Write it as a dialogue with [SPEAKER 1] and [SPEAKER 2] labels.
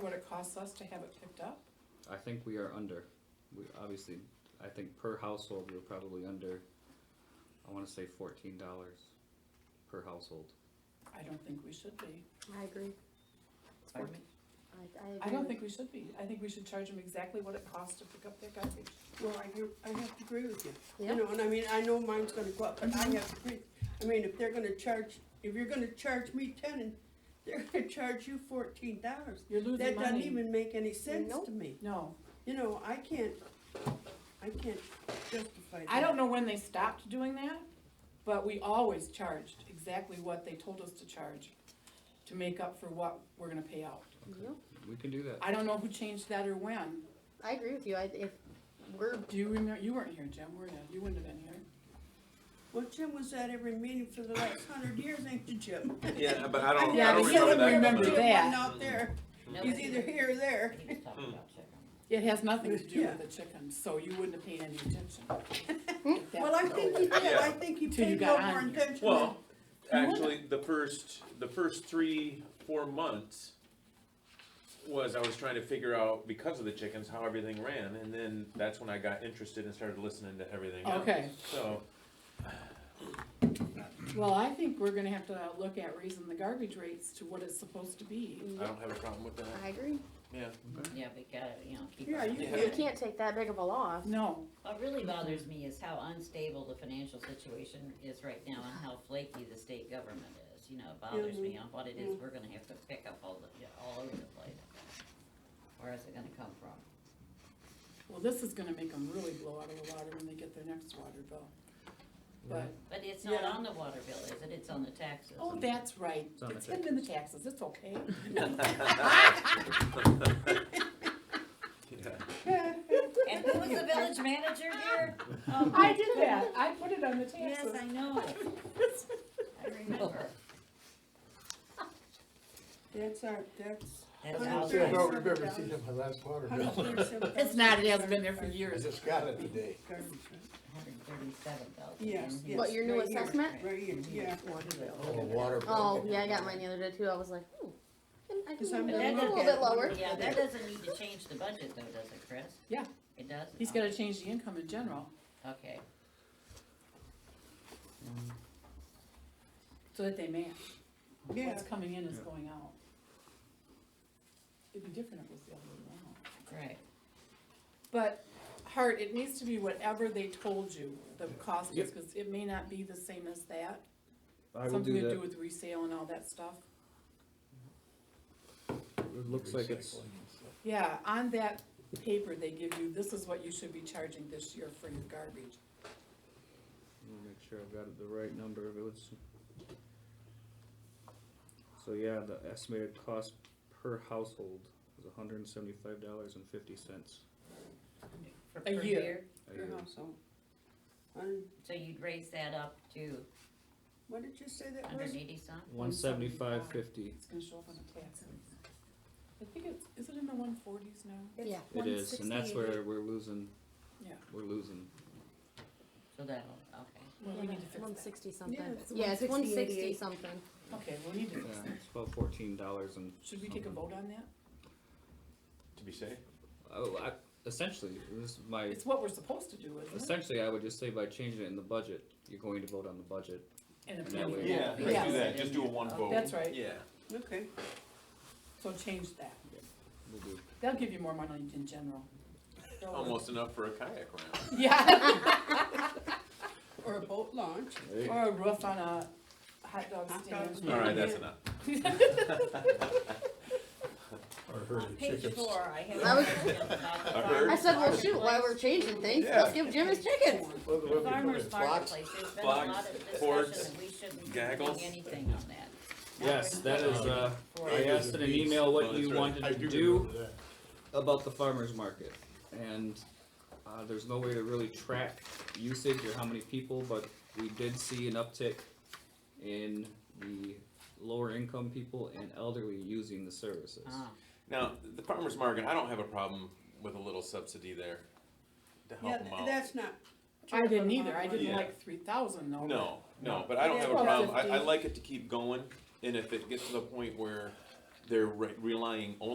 [SPEAKER 1] it costs us to have it picked up?
[SPEAKER 2] I think we are under, we, obviously, I think per household, we're probably under, I wanna say fourteen dollars per household.
[SPEAKER 1] I don't think we should be.
[SPEAKER 3] I agree.
[SPEAKER 1] Pardon me?
[SPEAKER 3] I, I agree.
[SPEAKER 1] I don't
[SPEAKER 3] with-
[SPEAKER 1] think we should be. I think we should charge them exactly what it costs to pick up their garbage.
[SPEAKER 4] Well, I, hear- I have to agree with you.
[SPEAKER 3] Yeah.
[SPEAKER 4] You know, and I mean, I know mine's gonna go up, but
[SPEAKER 1] Mm-hmm.
[SPEAKER 4] I have to agree. I mean, if they're gonna charge, if you're gonna charge me ten and they're gonna charge you fourteen dollars,
[SPEAKER 1] You're losing
[SPEAKER 4] that doesn't
[SPEAKER 1] money.
[SPEAKER 4] even make any sense
[SPEAKER 3] Nope.
[SPEAKER 4] to me.
[SPEAKER 1] No,
[SPEAKER 4] You know, I can't, I can't justify that.
[SPEAKER 1] I don't know when they stopped doing that, but we always charged exactly what they told us to charge to make up for what we're gonna pay out.
[SPEAKER 3] Yep.
[SPEAKER 2] We can do that.
[SPEAKER 1] I don't know who changed that or when.
[SPEAKER 3] I agree with you. I, if we're,
[SPEAKER 1] Do you remember, you weren't here, Jim, were you? You wouldn't have been here.
[SPEAKER 4] Well, Jim was at every meeting for the last hundred years, ain't you, Jim?
[SPEAKER 5] Yeah, but I don't,
[SPEAKER 1] Yeah,
[SPEAKER 5] I don't
[SPEAKER 1] but he
[SPEAKER 5] remember
[SPEAKER 1] doesn't
[SPEAKER 5] that.
[SPEAKER 1] remember
[SPEAKER 4] Jim
[SPEAKER 5] coming up.
[SPEAKER 1] that.
[SPEAKER 4] wasn't out there. He's either here or there.
[SPEAKER 6] He was talking about chicken.
[SPEAKER 1] It has nothing to do
[SPEAKER 4] Yeah.
[SPEAKER 1] with the chickens, so you wouldn't have paid any attention.
[SPEAKER 4] Well, I think he did. I think he
[SPEAKER 1] Till you
[SPEAKER 4] paid
[SPEAKER 1] got
[SPEAKER 4] no more
[SPEAKER 1] on.
[SPEAKER 4] attention.
[SPEAKER 5] Well, actually, the first, the first three, four months was I was trying to figure out, because of the chickens, how everything ran, and then that's when I got interested and started listening to everything else.
[SPEAKER 1] Okay.
[SPEAKER 5] So,
[SPEAKER 1] Well, I think we're gonna have to look at raising the garbage rates to what it's supposed to be.
[SPEAKER 5] I don't have a problem with that,
[SPEAKER 3] I agree.
[SPEAKER 5] yeah.
[SPEAKER 6] Yeah, we gotta, you know, keep.
[SPEAKER 4] Yeah,
[SPEAKER 6] up
[SPEAKER 4] you
[SPEAKER 6] with
[SPEAKER 3] You
[SPEAKER 6] it.
[SPEAKER 3] can't take that big of a loss.
[SPEAKER 1] No,
[SPEAKER 6] What really bothers me is how unstable the financial situation is right now and how flaky the state government is, you know, it bothers me on what it is we're gonna have to pick up all the, all over the place. Where is it gonna come from?
[SPEAKER 1] well, this is gonna make them really blow out of the water when they get their next water bill. But,
[SPEAKER 6] But it's not
[SPEAKER 4] Yeah.
[SPEAKER 6] on the water bill, is it? It's on the taxes.
[SPEAKER 1] oh, that's right,
[SPEAKER 2] on the
[SPEAKER 1] it's hidden in the taxes, it's okay.
[SPEAKER 5] Yeah.
[SPEAKER 6] And who was the village manager here? Oh,
[SPEAKER 1] I did that, I put it on the
[SPEAKER 6] Yes,
[SPEAKER 1] taxes.
[SPEAKER 6] I know. I remember.
[SPEAKER 4] That's our, that's.
[SPEAKER 6] That's
[SPEAKER 4] Well,
[SPEAKER 6] how.
[SPEAKER 4] sure.
[SPEAKER 7] I don't remember seeing my last water bill.
[SPEAKER 1] It's not, it hasn't been there for
[SPEAKER 7] I
[SPEAKER 1] years.
[SPEAKER 7] just got it today.
[SPEAKER 6] Hundred and thirty-seven thousand.
[SPEAKER 4] Yes, yes.
[SPEAKER 3] What, your new
[SPEAKER 4] right here,
[SPEAKER 3] assessment?
[SPEAKER 4] Right here,
[SPEAKER 1] Mm-hmm.
[SPEAKER 4] yeah.
[SPEAKER 7] Oh, water bill.
[SPEAKER 3] Oh, yeah, I got mine the other day too. I was like, hmm. I
[SPEAKER 4] Cause
[SPEAKER 3] can
[SPEAKER 4] I'm
[SPEAKER 3] do
[SPEAKER 4] gonna
[SPEAKER 3] it a
[SPEAKER 6] look
[SPEAKER 3] little
[SPEAKER 4] at
[SPEAKER 3] bit
[SPEAKER 4] it.
[SPEAKER 3] lower.
[SPEAKER 6] Yeah, that doesn't need to change the budget though, does it, Chris?
[SPEAKER 1] Yeah.
[SPEAKER 6] It does?
[SPEAKER 1] He's gotta change the income in general,
[SPEAKER 6] Okay,
[SPEAKER 1] so that they match.
[SPEAKER 4] Yeah.
[SPEAKER 1] What's coming in is going out. It'd be different if it was the other way around.
[SPEAKER 6] right.
[SPEAKER 1] But, Hart, it needs to be whatever they told you the cost is, cause it may not be the same as that.
[SPEAKER 2] I will
[SPEAKER 1] Something
[SPEAKER 2] do
[SPEAKER 1] to do
[SPEAKER 2] that.
[SPEAKER 1] with resale and all that stuff.
[SPEAKER 2] It looks like it's,
[SPEAKER 1] Yeah, on that paper they give you, this is what you should be charging this year for your garbage.
[SPEAKER 2] let me make sure I've got the right number of it. Let's- So yeah, the estimated cost per household is hundred and seventy-five dollars and fifty cents
[SPEAKER 6] For
[SPEAKER 1] A
[SPEAKER 6] per
[SPEAKER 1] year.
[SPEAKER 2] a
[SPEAKER 4] Your
[SPEAKER 2] year.
[SPEAKER 4] household. Un-
[SPEAKER 6] So you'd raise that up to
[SPEAKER 4] What did you say that
[SPEAKER 6] hundred
[SPEAKER 4] was?
[SPEAKER 6] and eighty some?
[SPEAKER 2] One seventy-five fifty.
[SPEAKER 1] It's gonna show up on the taxes. I think it's, is it in the one forties now?
[SPEAKER 3] Yeah.
[SPEAKER 2] It is, and that's
[SPEAKER 3] 168.
[SPEAKER 2] where we're losing,
[SPEAKER 1] Yeah.
[SPEAKER 2] we're losing.
[SPEAKER 6] So that'll, okay.
[SPEAKER 1] Well, we need to fix
[SPEAKER 3] One
[SPEAKER 1] that.
[SPEAKER 3] sixty something.
[SPEAKER 4] Yeah, it's
[SPEAKER 3] Yeah, it's one sixty
[SPEAKER 4] 160.
[SPEAKER 3] something.
[SPEAKER 1] Okay, we need to
[SPEAKER 2] Yeah,
[SPEAKER 1] fix that.
[SPEAKER 2] it's about fourteen dollars and.
[SPEAKER 1] Should we take a
[SPEAKER 2] something.
[SPEAKER 1] vote on that?
[SPEAKER 5] To be safe.
[SPEAKER 2] Oh, I, essentially, this is my,
[SPEAKER 1] It's what we're supposed to do, isn't it?
[SPEAKER 2] essentially, I would just say by changing it in the budget, you're going to vote on the budget.
[SPEAKER 1] And
[SPEAKER 2] And
[SPEAKER 1] it's
[SPEAKER 2] that way-
[SPEAKER 5] Yeah, let's do
[SPEAKER 1] Yes.
[SPEAKER 5] that, just do a one vote.
[SPEAKER 1] That's right.
[SPEAKER 5] Yeah.
[SPEAKER 4] Okay,
[SPEAKER 1] So change that.
[SPEAKER 2] We'll do.
[SPEAKER 1] They'll give you more money in general. They'll-
[SPEAKER 5] Almost enough for a kayak round.
[SPEAKER 1] Yeah,
[SPEAKER 4] or a boat launch.
[SPEAKER 1] or a roof on a hot dog
[SPEAKER 4] Hot dog
[SPEAKER 1] stand.
[SPEAKER 4] stand.
[SPEAKER 5] All right, that's enough.
[SPEAKER 7] Or herd
[SPEAKER 6] On
[SPEAKER 7] of
[SPEAKER 6] page
[SPEAKER 7] chickens.
[SPEAKER 6] four, I have.
[SPEAKER 3] I was-
[SPEAKER 5] I
[SPEAKER 6] I
[SPEAKER 5] heard.
[SPEAKER 3] I said, well, shoot, while we're changing things, let's give Jim his chickens.
[SPEAKER 7] Well, the way we put it,
[SPEAKER 6] Farmer's
[SPEAKER 7] flocks.
[SPEAKER 6] marketplace, there's been a
[SPEAKER 5] Blocks,
[SPEAKER 6] lot of
[SPEAKER 5] boards,
[SPEAKER 6] discussion and we shouldn't be doing
[SPEAKER 5] gaggles.
[SPEAKER 6] anything on that.
[SPEAKER 2] Yes, that is, uh,
[SPEAKER 6] For-
[SPEAKER 2] I asked in an email
[SPEAKER 5] Oh,
[SPEAKER 2] what
[SPEAKER 5] that's
[SPEAKER 2] you
[SPEAKER 5] right.
[SPEAKER 2] wanted
[SPEAKER 7] I
[SPEAKER 2] to
[SPEAKER 7] do
[SPEAKER 2] do
[SPEAKER 7] remember that.
[SPEAKER 2] about the farmer's market. And, uh, there's no way to really track usage or how many people, but we did see an uptick in the lower income people and elderly using the services.
[SPEAKER 6] Ah,
[SPEAKER 5] Now, the farmer's market, I don't have a problem with a little subsidy there to
[SPEAKER 4] Yeah,
[SPEAKER 5] help them out.
[SPEAKER 4] that's not.
[SPEAKER 1] I didn't either, I
[SPEAKER 5] Yeah.
[SPEAKER 1] didn't like three thousand though.
[SPEAKER 5] No, no, but I don't have a
[SPEAKER 1] Yeah.
[SPEAKER 5] problem, I, I
[SPEAKER 1] 12.50.
[SPEAKER 5] like it to keep going, and if it gets to the point where they're re- relying only